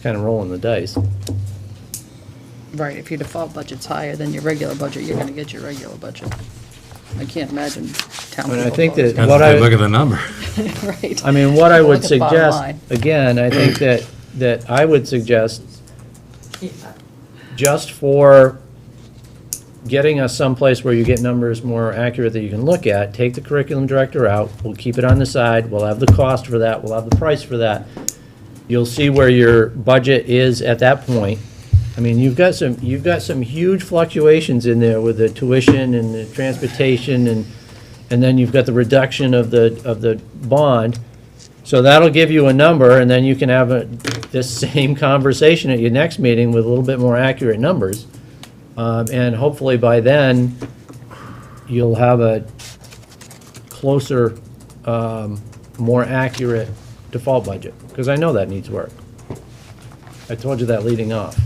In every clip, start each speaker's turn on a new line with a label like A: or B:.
A: kind of rolling the dice.
B: Right, if your default budget's higher than your regular budget, you're gonna get your regular budget. I can't imagine town
A: I mean, I
B: people
A: think
B: voting.
A: that- What I-
C: Look at the number.
B: Right.
A: I mean, what I would
B: Look at bottom
A: suggest,
B: line.
A: again, I think that, that I would suggest, just for getting us someplace where you get numbers more accurate that you can look at, take the curriculum director out, we'll keep it on the side, we'll have the cost for that, we'll have the price for that. You'll see where your budget is at that point. I mean, you've got some, you've got some huge fluctuations in there with the tuition and the transportation and, and then you've got the reduction of the, of the bond. So that'll give you a number, and then you can have a- this same conversation at your next meeting with a little bit more accurate numbers. Um, And hopefully by then, you'll have a closer, um, more accurate default budget, because I know that needs work. I told you that leading off.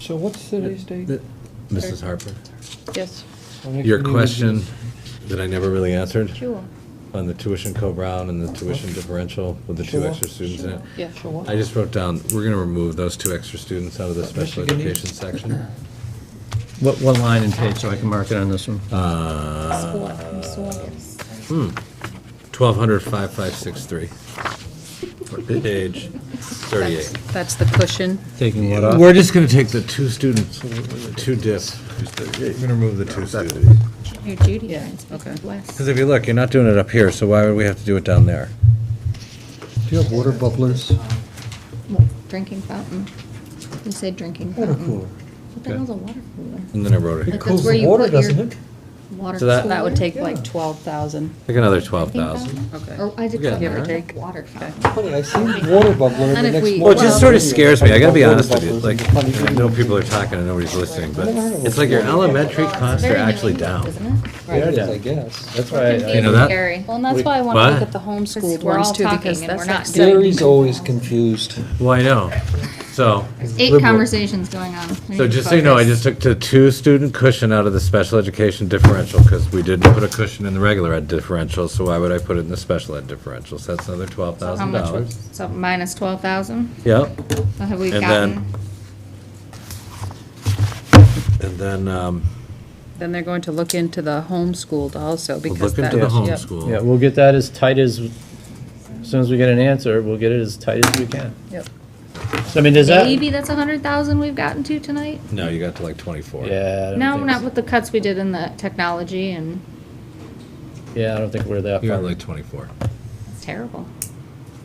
D: So what's today's date?
C: Mrs. Harper,
B: Yes,
C: your question that I never really answered
B: sure,
C: on the tuition co-brown and the tuition differential with the two
D: Sure,
C: extra students in it.
B: yeah.
C: I just wrote down, we're gonna remove those two extra students out of the special
D: Michigan
C: education section.
A: What, what line and page, so I can mark it on this one?
C: Uh, Twelve hundred five five six three. Page thirty-eight.
B: That's- That's the cushion.
A: Taking what off?
C: We're just gonna take the two students, two diff. We're gonna remove the two students.
E: Your duty
B: Yeah,
E: lines
B: okay.
E: become less.
C: Because if you look, you're not doing it up here, so why would we have to do it down there?
D: Do you have water bubblers?
E: Well, Drinking fountain. You said drinking
D: Water
E: fountain.
D: cooler.
E: What the hell's a water cooler?
C: And then I wrote
E: Like
C: it,
E: that's where you put your Water
C: So
E: cooler?
C: that-
B: That would take
D: Yeah.
B: like twelve thousand.
C: like another twelve
E: Drinking
C: thousand.
E: fountain?
B: Okay.
E: Or I did
C: Yeah.
E: call
C: Give or
E: it
B: take.
E: a water fountain.
D: Funny, I seen water bubbler
E: And
D: and the
E: if
D: next
E: we-
D: morning.
C: Well, it just sort of scares me, I gotta be
D: Water
C: honest with you,
D: bubblers
C: like,
D: and funny
C: I know people are talking and nobody's listening, but it's like your elementary costs are actually down.
E: Isn't it?
D: Yeah, it is,
A: Yeah.
D: I guess.
A: That's why, I-
C: You know that?
B: Well, and that's why I
C: What?
B: wanna look at the homeschooled
E: We're
B: ones
E: all
B: too, because
E: talking and
B: that's
E: we're
B: like
E: not
B: seventy.
E: doing.
D: Gary's always confused.
C: Well, I know, so.
E: Eight conversations going on. We
C: So
E: need to
C: just so you know, I just
E: focus.
C: took the two-student cushion out of the special education differential, because we didn't put a cushion in the regular ed differential, so why would I put it in the special ed differential? So that's another twelve
E: So how
C: thousand
E: much would-
C: dollars.
E: So minus twelve thousand?
C: Yep,
E: So have we
C: And then-
E: gotten?
C: and then, um,
B: Then they're going to look into the homeschooled also,
C: we'll
B: because
C: look
B: that.
C: into the
B: yep.
A: yeah,
C: homeschool.
A: we'll get that as tight as, as soon as we get an answer, we'll get it as tight as we can.
B: Yep.
A: So I mean, does that?
E: Maybe that's a hundred thousand we've gotten to tonight?
C: No, you got to like twenty-four.
A: Yeah. I don't
E: No,
A: think
E: not
A: so.
E: with the cuts we did in the technology and
A: Yeah, I don't think we're that
C: You're
A: far.
C: at like twenty-four.
E: it's terrible.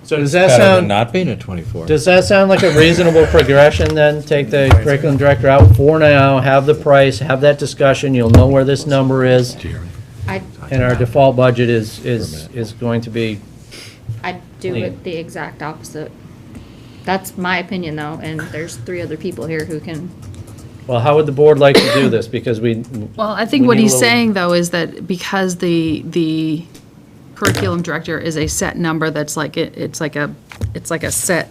A: So does that
C: Better than
A: sound,
C: Not being at twenty-four.
A: does that sound like a reasonable progression then? Take the curriculum director out for now, have the price, have that discussion, you'll know where this number is.
C: Do you hear me?
E: I,
A: And our default budget is, is,
C: For a minute.
A: is going to be,
E: I'd do
A: Clean.
E: it the exact opposite. That's my opinion though, and there's three other people here who can,
A: well, how would the board like to do this? Because we,
B: Well, I think
A: We
B: what
A: need a
B: he's
A: little-
B: saying, though, is that because the, the curriculum director is a set number that's like, it it's like a, it's like a set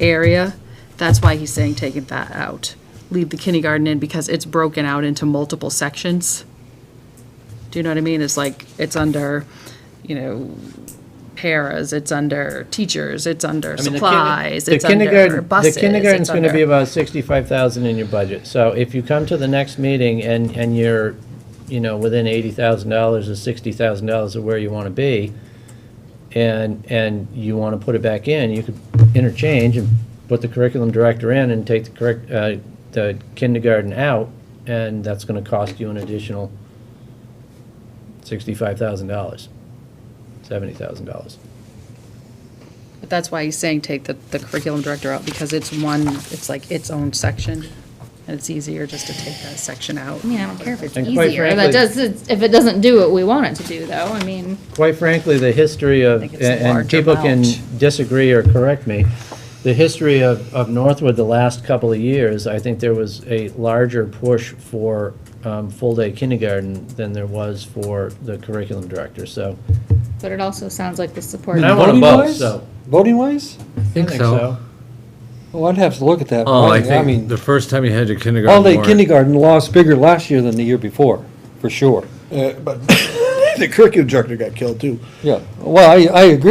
B: area, that's why he's saying taking that out. Leave the kindergarten in because it's broken out into multiple sections. Do you know what I mean? It's like, it's under, you know, paras, it's under teachers, it's
A: I
B: under
A: mean, the
B: supplies,
A: the
B: it's under
A: kindergarten,
B: buses.
A: the kindergarten's
B: it's
A: gonna be
B: under-
A: about sixty-five thousand in your budget. So if you come to the next meeting and, and you're, you know, within eighty thousand dollars or sixty thousand dollars of where you wanna be, and, and you wanna put it back in, you could interchange and put the curriculum director in and take the correct, uh, the kindergarten out, and that's gonna cost you an additional sixty-five thousand dollars, seventy thousand dollars.
B: But that's why he's saying take the, the curriculum director out, because it's one, it's like its own section, and it's easier just to take that section out.
E: I mean, I don't care if it's
A: And quite
E: easier. That
A: frankly-
E: does, if it doesn't do what we want it to do though, I mean,
A: quite frankly, the history of,
B: I think it's a
A: and
B: large
A: people can
B: amount.
A: disagree or correct me, the history of, of Northwood the last couple of years, I think there was a larger push for um, full-day kindergarten than there was for the curriculum director, so.
E: but it also sounds like the support.
A: And I want them both,
D: Voting-wise?
A: so.
D: Voting-wise?
A: I think so.
D: Well, I'd have to look at that.
C: Oh, I
D: voting. mean,
C: think the first time you had your kindergarten
D: All-day
C: warrant-
D: kindergarten lost bigger last year than the year before, for sure.
F: Uh, But the curriculum director got killed too.
D: Yeah, well, I, I agree